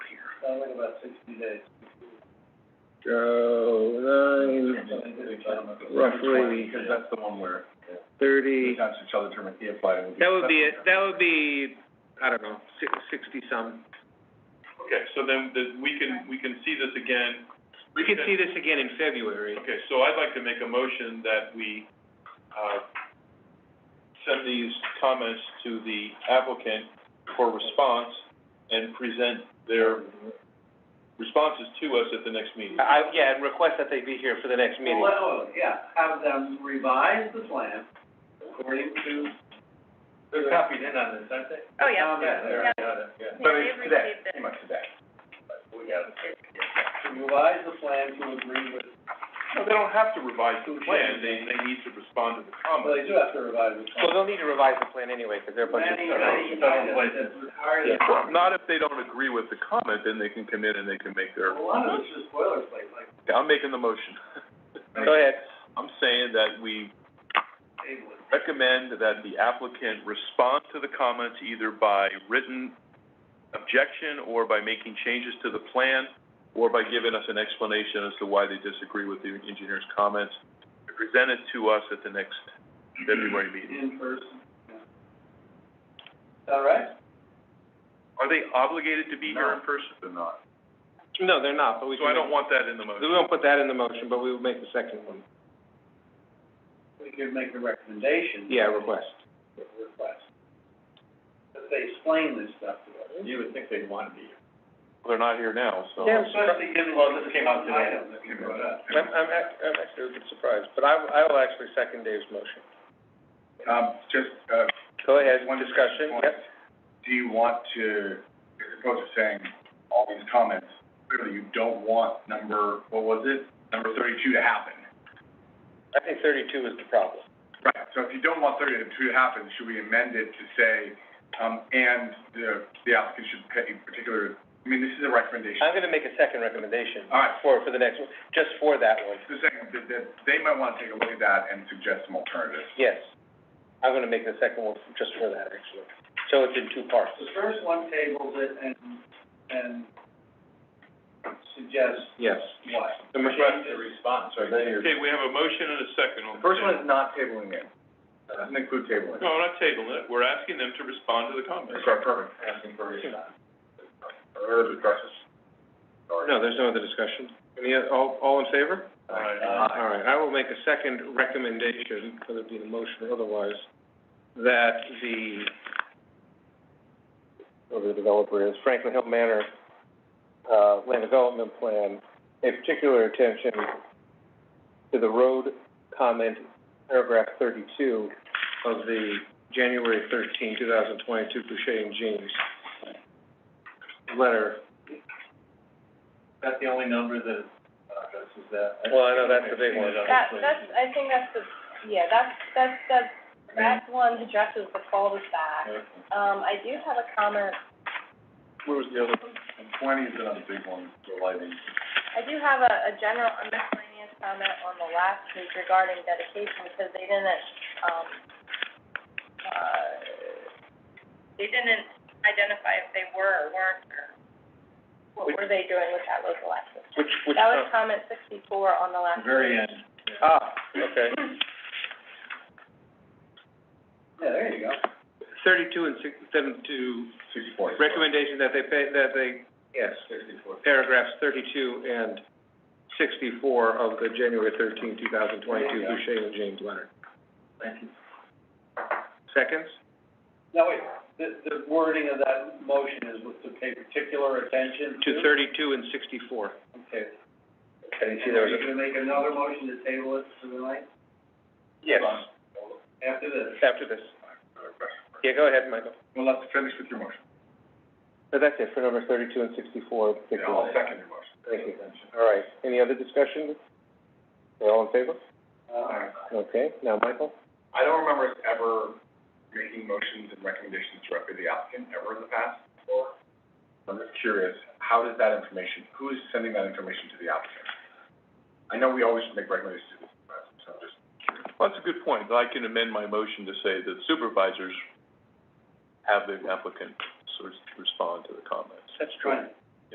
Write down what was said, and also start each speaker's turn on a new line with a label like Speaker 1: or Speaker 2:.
Speaker 1: I like about sixty days.
Speaker 2: So, nine, roughly-
Speaker 1: Because that's the one where the
Speaker 2: thirty,
Speaker 1: township shall determine if I would.
Speaker 2: that would be, it. that would be, I don't know, six, sixty-some.
Speaker 3: Okay, so then, the, we can, we can see this again.
Speaker 2: We could see this again in February.
Speaker 3: Okay, so I'd like to make a motion that we, uh, send these comments to the applicant for response and present their responses to us at the next meeting.
Speaker 2: I, yeah, and request that they be here for the next meeting.
Speaker 1: Well, yeah, have them revise the plan according to. They're copied in on this, aren't they?
Speaker 4: Oh, yeah.
Speaker 1: Um, Yeah, they already got it, yeah.
Speaker 4: Yeah, they've received it.
Speaker 1: Pretty much today. But We got it. To Revise the plan to agree with.
Speaker 3: No, they don't have to revise the plan, they, they need to respond to the
Speaker 1: Well, they
Speaker 3: comments.
Speaker 1: do have to revise the plan.
Speaker 2: Well, they'll need to revise the plan anyway, because they're a bunch of.
Speaker 1: Planning commission that's required.
Speaker 3: Not if they don't agree with the comment, then they can come in and they can make
Speaker 1: A lot of it's just boilerplate, like.
Speaker 3: I'm making the motion.
Speaker 2: Go ahead.
Speaker 3: I'm saying that we
Speaker 1: table it.
Speaker 3: recommend that the applicant respond to the comments either by written objection or by making changes to the plan, or by giving us an explanation as to why they disagree with the engineer's comments, present it to us at the next February meeting.
Speaker 1: In person. yeah. All right?
Speaker 3: Are they obligated to be here in
Speaker 1: No.
Speaker 3: person? They're not.
Speaker 2: No, they're not, but we
Speaker 3: So I
Speaker 2: can,
Speaker 3: don't want that in the
Speaker 2: we
Speaker 3: motion.
Speaker 2: won't put that in the motion, but we will make the second one.
Speaker 1: We could make a recommendation.
Speaker 2: Yeah, request.
Speaker 1: Request. That they explain this stuff to us. You would think they'd want to be.
Speaker 3: They're not here now, so.
Speaker 2: Yeah.
Speaker 1: Especially given. Well, this came out today. Item that you brought up.
Speaker 2: I'm, I'm, ac- I'm actually a bit surprised, but I, I will actually second Dave's motion.
Speaker 5: Um, just, uh,
Speaker 2: Go ahead,
Speaker 5: One
Speaker 2: discussion,
Speaker 5: point.
Speaker 2: yep.
Speaker 5: do you want to, as opposed to saying all these comments, clearly you don't want number, what was it? Number thirty-two to happen.
Speaker 2: I think thirty-two is the problem.
Speaker 5: Right, so if you don't want thirty-two to happen, should we amend it to say, um, and the, the applicant should pay particular, I mean, this is a recommendation.
Speaker 2: I'm gonna make a second recommendation
Speaker 5: All right.
Speaker 2: for, for the next one, just for that one,
Speaker 5: Just saying that, that they might wanna take a look at that and suggest some alternatives.
Speaker 2: yes. I'm gonna make the second one just for that, actually. So it's in two parts.
Speaker 1: The first one tables it and, and suggests
Speaker 2: Yes.
Speaker 1: what?
Speaker 2: The request-
Speaker 1: response, right?
Speaker 3: Okay, we have a motion and a second on the table.
Speaker 5: is not tabling it. That doesn't include tabling.
Speaker 2: Oh.
Speaker 3: No, we're not tabling it, we're asking them to respond to the comments.
Speaker 5: Sorry, perfect.
Speaker 1: Asking for response.
Speaker 5: Or the process.
Speaker 2: No, there's no other discussion. Any, oth- all, all in favor?
Speaker 3: All right.
Speaker 2: Uh,
Speaker 1: Uh,
Speaker 2: All right, I will make a second recommendation, whether it be the motion or otherwise, that the, whoever the developer is, Franklin Hill Manor, uh, land development plan, pay particular attention to the road comment, paragraph thirty-two of the January 13, 2022 Boucher and James letter.
Speaker 1: That's the only number that uh, addresses that.
Speaker 2: Well, I know that's the big one.
Speaker 4: That, that's, I think that's the, yeah, that's, that's, that's, that one addresses the cul-de-sac. Um, I do have a comment,
Speaker 2: Where was the other?
Speaker 5: And twenty is another big one, the lighting.
Speaker 4: I do have a, a general, a miscellaneous comment on the last page regarding dedication, because they didn't, um, uh, they didn't identify if they were or weren't, or what were they doing with that local access?
Speaker 2: Which, which,
Speaker 4: That was comment sixty-four on the last.
Speaker 1: Very end.
Speaker 2: ah, okay.
Speaker 1: Yeah, there you go.
Speaker 2: thirty-two and six, seventy-two,
Speaker 5: Sixty-four.
Speaker 2: recommendation that they pay, that they, yes,
Speaker 1: Sixty-four.
Speaker 2: paragraphs thirty-two and sixty-four of the January 13, thousand twenty-two
Speaker 1: Yeah.
Speaker 2: Boucher and James Leonard.
Speaker 1: Thank you.
Speaker 2: Seconds?
Speaker 1: Now, wait, the, the wording of that motion is with to pay particular attention to?
Speaker 2: To thirty-two and sixty-four.
Speaker 1: Okay.
Speaker 2: Okay,
Speaker 1: And are you gonna make another motion to table it for the night
Speaker 2: Yes,
Speaker 1: after this?
Speaker 2: after this. Yeah, go ahead, Michael.
Speaker 5: Well, let's finish with your motion.
Speaker 2: So that's it for number thirty-two and sixty-four,
Speaker 5: Yeah, I'll second your motion.
Speaker 2: Thank you. All right, any other discussion? All in favor?
Speaker 1: Uh,
Speaker 2: Okay, now, Michael?
Speaker 5: I don't remember us ever making motions and recommendations directly to the applicant ever in the past. I'm just curious, how does that information, who is sending that information to the applicant? I know we always make recommendations to the applicant, so I'm just,
Speaker 3: Well, that's a good point. I can amend my motion to say that supervisors have the applicant sort of respond to the comments.
Speaker 1: that's trying.